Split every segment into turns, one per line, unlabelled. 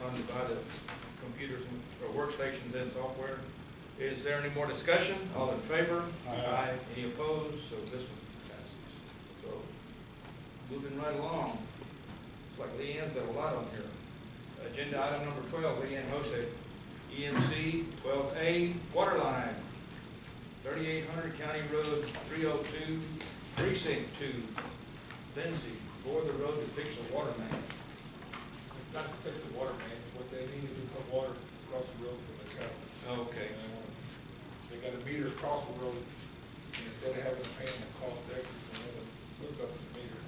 by the computers and or workstations and software. Is there any more discussion? All in favor?
Aye.
Any opposed? So this one passes. So moving right along, it's like Leanne's got a lot on here. Agenda item number twelve, Leanne Hosek, EMC twelve A, water line, thirty-eight hundred County Road three oh two, precinct two, Lindsay, bore the road to fix the water main.
Not to fix the water main, what they need is to put water across the road for the cattle.
Okay.
And they want, they got a meter across the road, and instead of having to pay them the cost extra, they have to hook up the meter.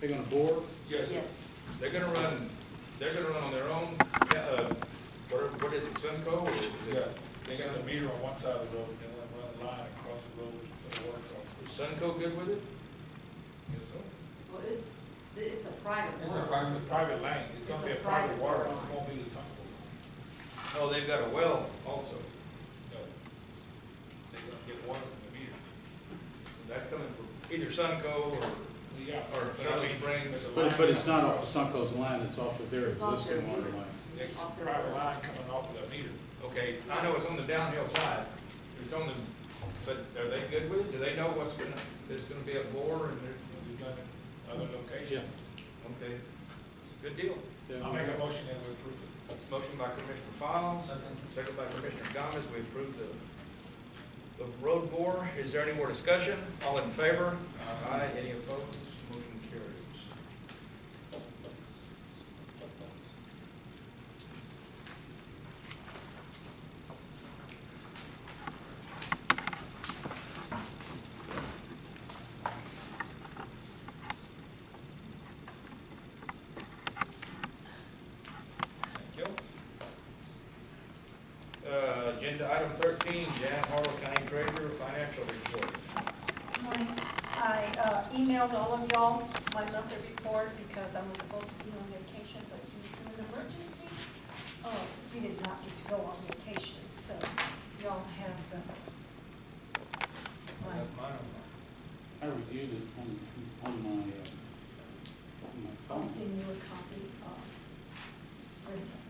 They're gonna bore?
Yes, sir.
Yes,
They're gonna run, they're gonna run on their own, uh, what, what is it, Sunco? or is it-
yeah, they got the meter on one side of the road, and then they run a line across the road for the water across.
Is Sunco good with it?
Yes, sir.
well, it's, it's a private
It's
road.
a private, private lane, it's gonna be a
It's a
private
private
water,
line.
line. it won't be the same.
Oh, they've got a well also.
No. They're gonna get water from the meter.
That's coming from either Sunco or,
Yeah.
Or
but I mean,
Charlie Springs.
the
But,
line
but it's
coming
not off
across-
of Sunco's line, it's off of their
It's off their
existing water
meter.
line.
It's a private line coming off of the meter.
okay, I know it's on the downhill side, it's on the, but are they good with it? Do they know what's gonna, there's gonna be a bore and they're,
We've done it other
Yeah,
locations.
okay, good deal.
I'll
yeah.
make a motion that we approve it.
Motion by Commissioner Fowles, second by Commissioner Gomez, we approve the, the road bore. Is there any more discussion? All in favor? Aye. Any opposed? Motion carries. Thank you. Uh, agenda item thirteen, Jan Harrell County Treasurer, financial report.
Good morning. I uh, emailed all of y'all my monthly report because I was supposed to be on vacation, but due to an emergency, uh, we did not get to go on vacation, so y'all have the,
I
my
have mine on
I reviewed it on, on my, uh,
so
on my
I'll
phone.
send you a copy of Brenda.
mine.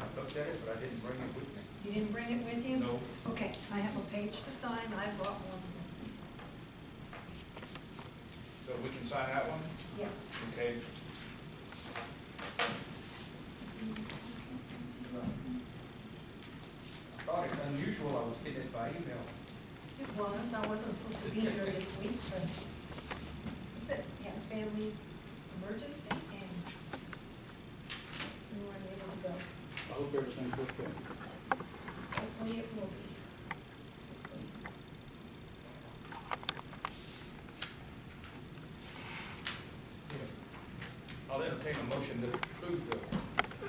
I looked at it, but I didn't bring it with me.
You didn't bring it with you?
No.
Okay, I have a page to sign, I brought one.
So we can sign that one?
Yes.
Okay. I thought it's unusual I was getting it by email.
It was, I wasn't supposed to be here this week, but that's it, had a family emergency and we weren't able to go.
I hope everything's okay.
Hopefully it will be.
I'll entertain a motion to approve the.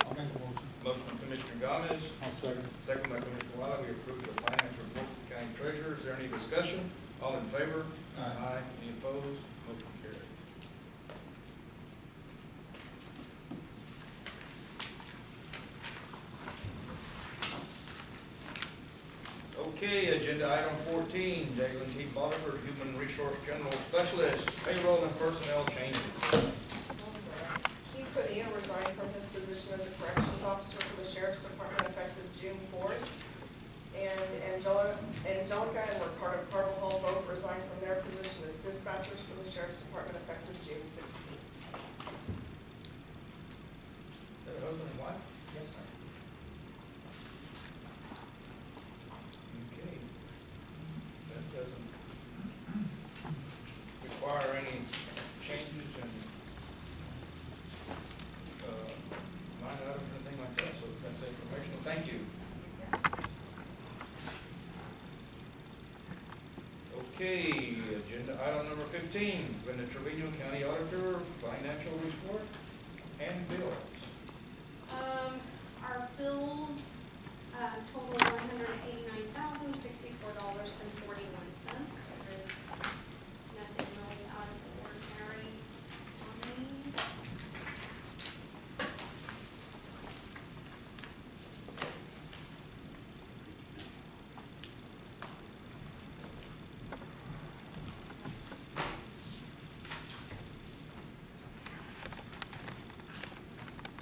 I'll make a motion.
Motion by Commissioner Gomez,
I'll second.
second by Commissioner Wiley, we approve the financial report of the county treasurer. Is there any discussion? All in favor?
Aye.
Any opposed? Motion carried. Okay, agenda item fourteen, Jalen T. Bonifer, Human Resource General Specialist, payroll and personnel changes.
Keith Padilla resigned from his position as a corrections officer for the sheriff's department effective June fourth. And Angela, Angelica and Ricardo Carvajal both resigned from their position as dispatchers for the sheriff's department effective June sixteenth.
Is that husband and wife?
Yes, sir.
Okay. That doesn't require any changes and, uh, line items or anything like that, so that's informational, thank you. Okay, agenda item number fifteen, Brenda Trevino County Auditor, financial report and bill.